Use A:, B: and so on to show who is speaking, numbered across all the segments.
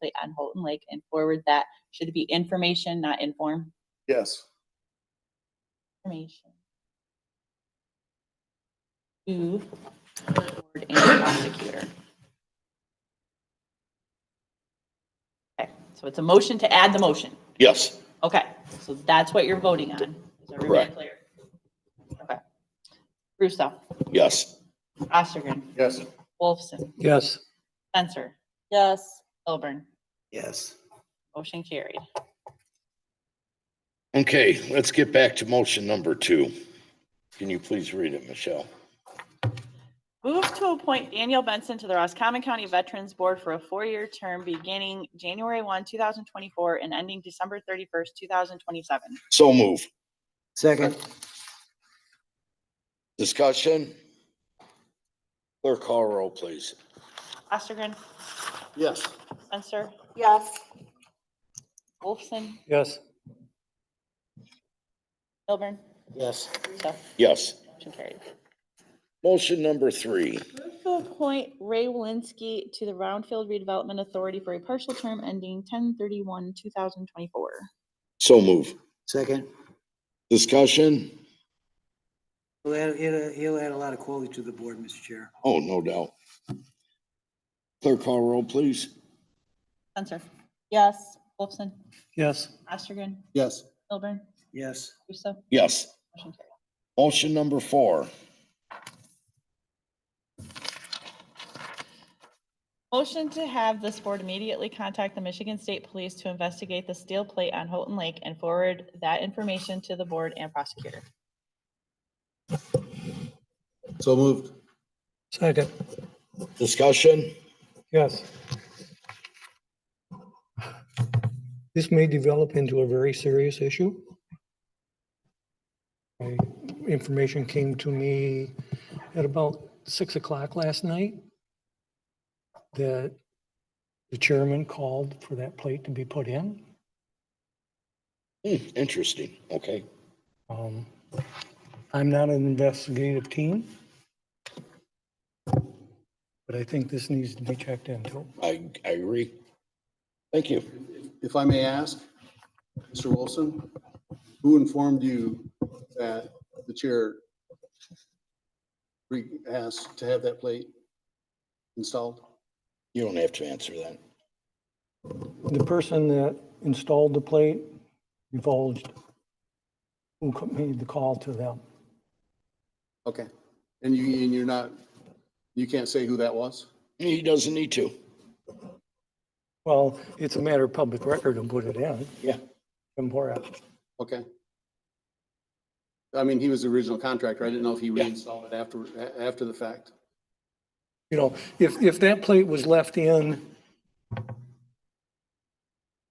A: directly on Holton Lake and forward that. Should it be information, not inform?
B: Yes.
A: Information. To the board and prosecutor. Okay, so it's a motion to add the motion.
B: Yes.
A: Okay, so that's what you're voting on. Is everybody
B: Correct.
A: clear? Okay. Russo,
B: Yes.
A: Ostergren,
B: Yes.
A: Wolfson,
C: Yes.
A: Censor. Yes. Milburn,
C: Yes.
A: motion carried.
B: Okay, let's get back to motion number two. Can you please read it, Michelle?
A: Move to appoint Daniel Benson to the Roscommon County Veterans Board for a four-year term beginning January 1, 2024 and ending December 31st, 2027.
B: So move.
C: Second.
B: Discussion? Clerk call roll, please.
A: Ostergren,
B: Yes.
A: Censor,
D: yes,
A: Wolfson,
C: Yes.
A: Milburn,
C: Yes.
A: Russo,
B: Yes.
A: motion carried.
B: Motion number three.
A: Move to appoint Ray Walensky to the Roundfield Redevelopment Authority for a partial term ending 10/31, 2024.
B: So move.
C: Second.
B: Discussion?
E: He'll add, he'll, he'll add a lot of quality to the board, Mr. Chair.
B: Oh, no doubt. Clerk call roll, please.
A: Censor. Yes. Wolfson.
C: Yes.
A: Ostergren.
B: Yes.
A: Milburn.
E: Yes,
A: Russo.
B: Yes.
A: Motion carried.
B: Motion number four.
A: Motion to have this board immediately contact the Michigan State Police to investigate the steel plate on Houghton Lake and forward that information to the board and prosecutor.
B: So moved.
C: Second.
B: Discussion?
C: Yes. This may develop into a very serious issue. I- Information came to me at about six o'clock last night that the chairman called for that plate to be put in.
B: Hmm, interesting. Okay.
C: Um, I'm not an investigative team. But I think this needs to be checked into.
B: I, I agree. Thank you.
F: If I may ask, Mr. Wilson, who informed you that the chair re- asked to have that plate installed?
B: You don't have to answer that.
C: The person that installed the plate divulged who co- made the call to them.
F: Okay. And you, and you're not, you can't say who that was?
B: He doesn't need to.
C: Well, it's a matter of public record and put it in.
B: Yeah.
C: And pour out.
F: Okay. I mean, he was the original contractor. I didn't know if he
B: Yeah.
F: reinstalled it after, a- after the fact.
C: You know, if, if that plate was left in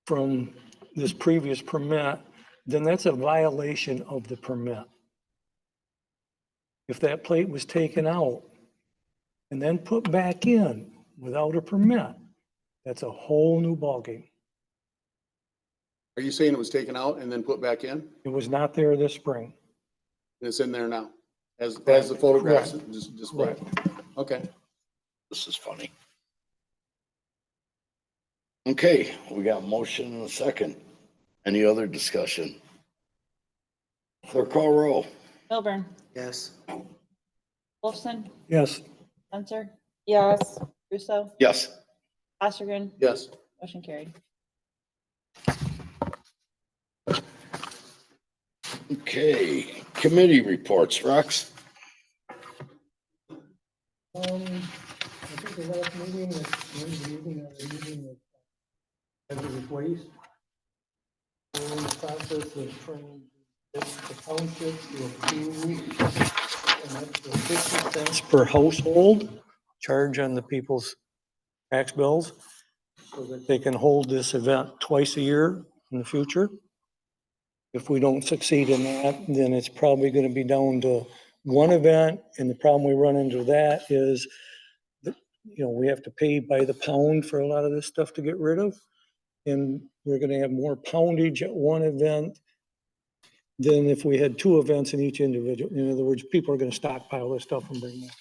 C: from this previous permit, then that's a violation of the permit. If that plate was taken out and then put back in without a permit, that's a whole new ballgame.
F: Are you saying it was taken out and then put back in? And
C: It was not there this spring.
F: it's in there now? As, as the photographs dis- display? Okay.
B: This is funny. Okay, we got a motion and a second. Any other discussion? Clerk call roll.
A: Milburn.
E: yes,
A: Wolfson.
C: Yes,
A: Censor.
D: yes,
A: Russo.
B: Yes.
A: Ostergren.
F: Yes.
A: Motion carried.
B: Okay, committee reports, Rex.
G: Um, I think the last meeting, was Wednesday evening, I
C: uh,
G: was meeting with hazardous waste. We're in the process of trying to get the township to approve an extra fifty
C: it's
G: cents
C: per household, charge on the people's tax bills.
G: so that
C: They can hold this event twice a year in the future. If we don't succeed in that, then it's probably going to be down to one event. And the problem we run into that is that, you know, we have to pay by the pound for a lot of this stuff to get rid of. And we're going to have more poundage at one event than if we had two events in each individual. In other words, people are going to stockpile this stuff and bring it.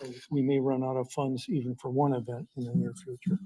C: So We may run out of funds even for one event in the near future.